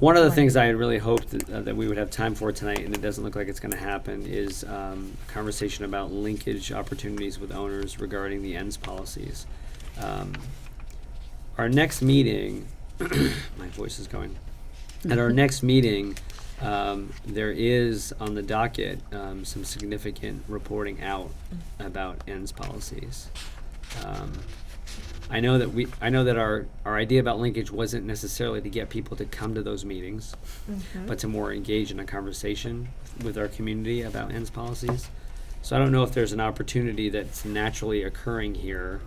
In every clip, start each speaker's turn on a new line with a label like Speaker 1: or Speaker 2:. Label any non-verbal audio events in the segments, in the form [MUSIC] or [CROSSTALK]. Speaker 1: One of the things I had really hoped that, uh, that we would have time for tonight, and it doesn't look like it's gonna happen, is, um, a conversation about linkage opportunities with owners regarding the ends policies. Um, Our next meeting, [CLEARS THROAT] my voice is going. At our next meeting, um, there is on the docket, um, some significant reporting out about ends policies. Um, I know that we, I know that our, our idea about linkage wasn't necessarily to get people to come to those meetings, but to more engage in a conversation with our community about ends policies. So I don't know if there's an opportunity that's naturally occurring here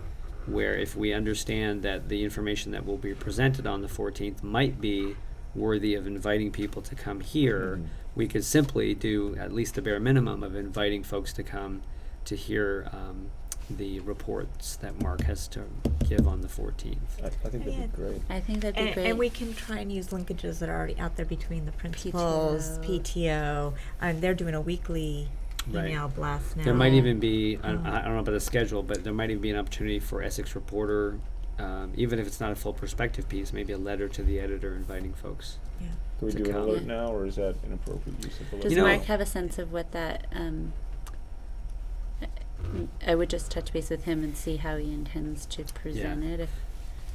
Speaker 1: where if we understand that the information that will be presented on the fourteenth might be worthy of inviting people to come here, we could simply do at least the bare minimum of inviting folks to come to hear um, the reports that Mark has to give on the fourteenth.
Speaker 2: I, I think that'd
Speaker 3: Yeah.
Speaker 2: be great.
Speaker 4: I think that'd be
Speaker 3: And,
Speaker 4: great.
Speaker 3: and we can try and use linkages that are already out there between the principals,
Speaker 4: PTO.
Speaker 3: PTO, and they're doing a weekly
Speaker 1: Right.
Speaker 3: email blast now.
Speaker 1: There might even be, I don't,
Speaker 3: Oh.
Speaker 1: I don't know about the schedule, but there might even be an opportunity for Essex Reporter, um, even if it's not a full perspective piece, maybe a letter to the editor inviting folks.
Speaker 3: Yeah.
Speaker 2: Can we
Speaker 1: To
Speaker 2: do an
Speaker 1: come.
Speaker 2: alert
Speaker 4: Yeah.
Speaker 2: now, or is that inappropriate use of alert?
Speaker 4: Does
Speaker 1: You know-
Speaker 4: Mark have a sense of what that? Um, I- I would just touch base with him and see how he intends to present it. If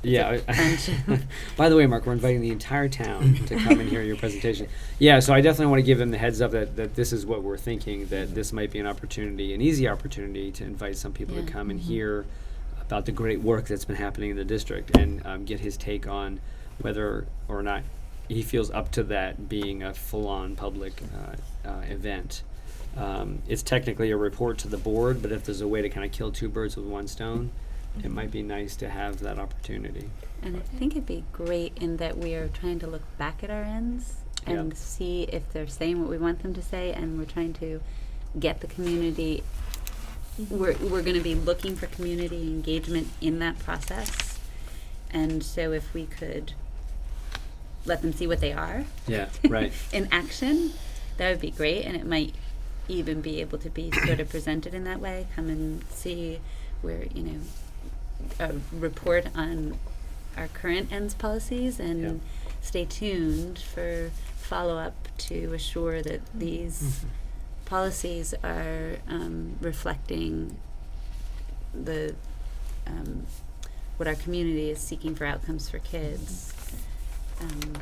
Speaker 1: Yeah. I- [LAUGHS]
Speaker 4: friendship.
Speaker 1: By the way, Mark, we're inviting the entire town to come and hear your presentation. Yeah, so I definitely want to give them the heads up that, that this is what we're thinking, that this might be an opportunity, an easy opportunity to invite some people to
Speaker 4: Yeah.
Speaker 1: come and hear about the great work that's been happening in the district and um, get his take on whether or not he feels up to that being a full-on public uh, uh, event. Um, it's technically a report to the board, but if there's a way to kind of kill two birds with one stone, it might be nice to have that opportunity.
Speaker 4: And I think it'd be great in that we are trying to look back at our ends
Speaker 1: Yeah.
Speaker 4: and see if they're saying what we want them to say, and we're trying to get the community.
Speaker 1: Mm-hmm.
Speaker 4: We're, we're going to be looking for community engagement in that process. And so, if we could let them see what they are
Speaker 1: Yeah,
Speaker 4: [LAUGHS]
Speaker 1: right.
Speaker 4: in action, that would be great. And it might even be able to be sort of presented in that way. Come and see where, you know, a report on our current ends policies and
Speaker 1: Yeah.
Speaker 4: stay tuned for follow up to assure that
Speaker 1: Mm-hmm.
Speaker 4: these policies are um, reflecting the um, what our community is seeking for outcomes for kids. Um,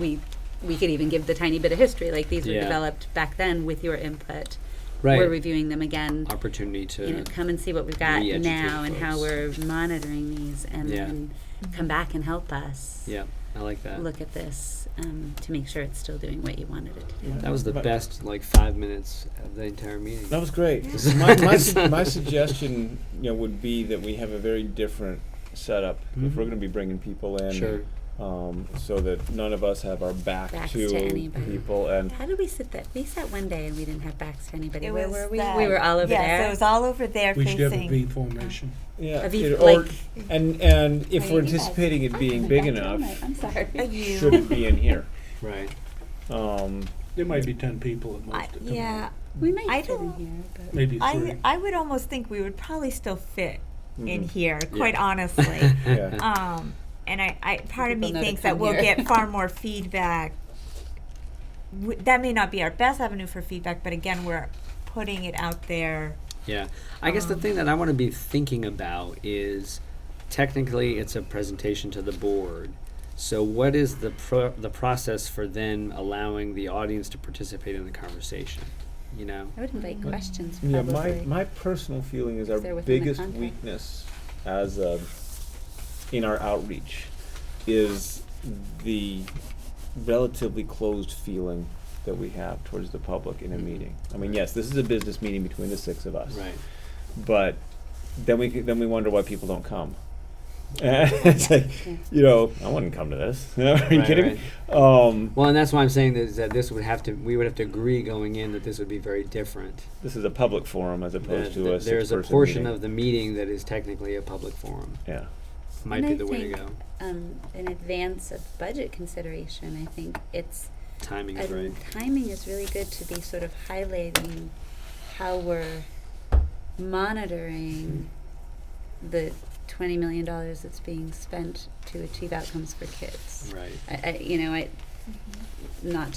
Speaker 4: we we could even give the tiny bit of history, like these were
Speaker 1: Yeah.
Speaker 4: developed back then with your input.
Speaker 1: Right.
Speaker 4: We're reviewing them again.
Speaker 1: opportunity to
Speaker 4: You know, come and see what we've got
Speaker 1: re-educate
Speaker 4: now and how
Speaker 1: folks.
Speaker 4: we're monitoring these, and
Speaker 1: Yeah.
Speaker 4: then come back and help us
Speaker 1: yeah i like that
Speaker 4: look at this um, to make sure it's still doing what you wanted it to do.
Speaker 1: that was the
Speaker 2: But-
Speaker 1: best like five minutes of the entire meeting
Speaker 2: That was great.
Speaker 3: Yeah.
Speaker 2: my,
Speaker 1: [LAUGHS]
Speaker 2: my, su- my suggestion, you know, would be that we have a very different setup if
Speaker 1: Mhm.
Speaker 2: we're going to be bringing people in,
Speaker 1: sure
Speaker 2: um, so that none of us have our back
Speaker 4: Backs
Speaker 2: to,
Speaker 4: to anybody.
Speaker 2: people. And
Speaker 4: How did we sit that? We sat one day and we didn't have backs to anybody.
Speaker 3: It
Speaker 4: Where
Speaker 3: was
Speaker 4: were we?
Speaker 3: that-
Speaker 4: We were all over
Speaker 3: yes,
Speaker 4: there.
Speaker 3: it was all over there
Speaker 5: We should have a
Speaker 3: facing.
Speaker 5: V formation.
Speaker 2: yeah,
Speaker 4: Of each,
Speaker 2: it- or,
Speaker 4: like-
Speaker 2: and and if
Speaker 4: Wait,
Speaker 2: we're
Speaker 4: you guys-
Speaker 2: anticipating it being big enough,
Speaker 4: I'm sorry.
Speaker 3: Uh, you-
Speaker 2: should it be in
Speaker 4: [LAUGHS]
Speaker 2: here?
Speaker 1: right
Speaker 2: Um,
Speaker 5: There might be ten people at most.
Speaker 3: I,
Speaker 5: that come in.
Speaker 3: yeah,
Speaker 4: We might
Speaker 3: I
Speaker 4: fit in
Speaker 3: don't-
Speaker 4: here, but
Speaker 5: Maybe
Speaker 3: I
Speaker 5: three.
Speaker 3: I would almost think we would probably still fit in
Speaker 2: mhm.
Speaker 3: here,
Speaker 1: Mm-hmm. Yeah.
Speaker 3: quite
Speaker 1: [LAUGHS]
Speaker 3: honestly.
Speaker 2: Yeah.
Speaker 3: um, and I, I part of me
Speaker 4: People know to
Speaker 3: thinks that
Speaker 4: come
Speaker 3: we'll
Speaker 4: here.
Speaker 3: get
Speaker 4: [LAUGHS]
Speaker 3: far more feedback. W- that may not be our best avenue for feedback, but again, we're putting it out there.
Speaker 1: yeah i guess the
Speaker 3: Um,
Speaker 1: thing that i want to be thinking about is technically it's a presentation to the board so what is the pro- the process for then allowing the audience to participate in the conversation you know
Speaker 4: I would invite
Speaker 3: Mm-hmm.
Speaker 4: questions
Speaker 2: Yeah,
Speaker 4: probably.
Speaker 2: my, my personal feeling is our
Speaker 4: they're within the
Speaker 2: biggest
Speaker 4: contract.
Speaker 2: weakness as a, in our outreach is the relatively closed feeling that we have towards the public in a
Speaker 1: Mhm.
Speaker 4: Mm-hmm.
Speaker 2: meeting. I mean, yes, this is a business meeting between the six of us.
Speaker 1: right
Speaker 2: But then we, c- then we wonder why people don't come. [LAUGHS] It's like, you know, I wouldn't come to this. [LAUGHS] Are you
Speaker 1: Right,
Speaker 2: kidding me? Um,
Speaker 1: well and that's why i'm saying this, that this would have to we would have to agree going in that this would be very different
Speaker 2: this is a public forum as
Speaker 1: that
Speaker 2: opposed
Speaker 1: th-
Speaker 2: to a six-person meeting.
Speaker 1: there's a portion of the meeting that is technically a public forum
Speaker 2: Yeah.
Speaker 1: might
Speaker 4: And
Speaker 1: be
Speaker 4: I
Speaker 1: the way to
Speaker 4: think
Speaker 1: go
Speaker 4: um, in advance of budget consideration, I think it's
Speaker 1: timing
Speaker 4: I
Speaker 1: is right
Speaker 4: think timing is really good to be sort of highlighting how we're monitoring the twenty million dollars that's being spent to achieve outcomes for kids.
Speaker 1: right
Speaker 4: I, I, you know, I, not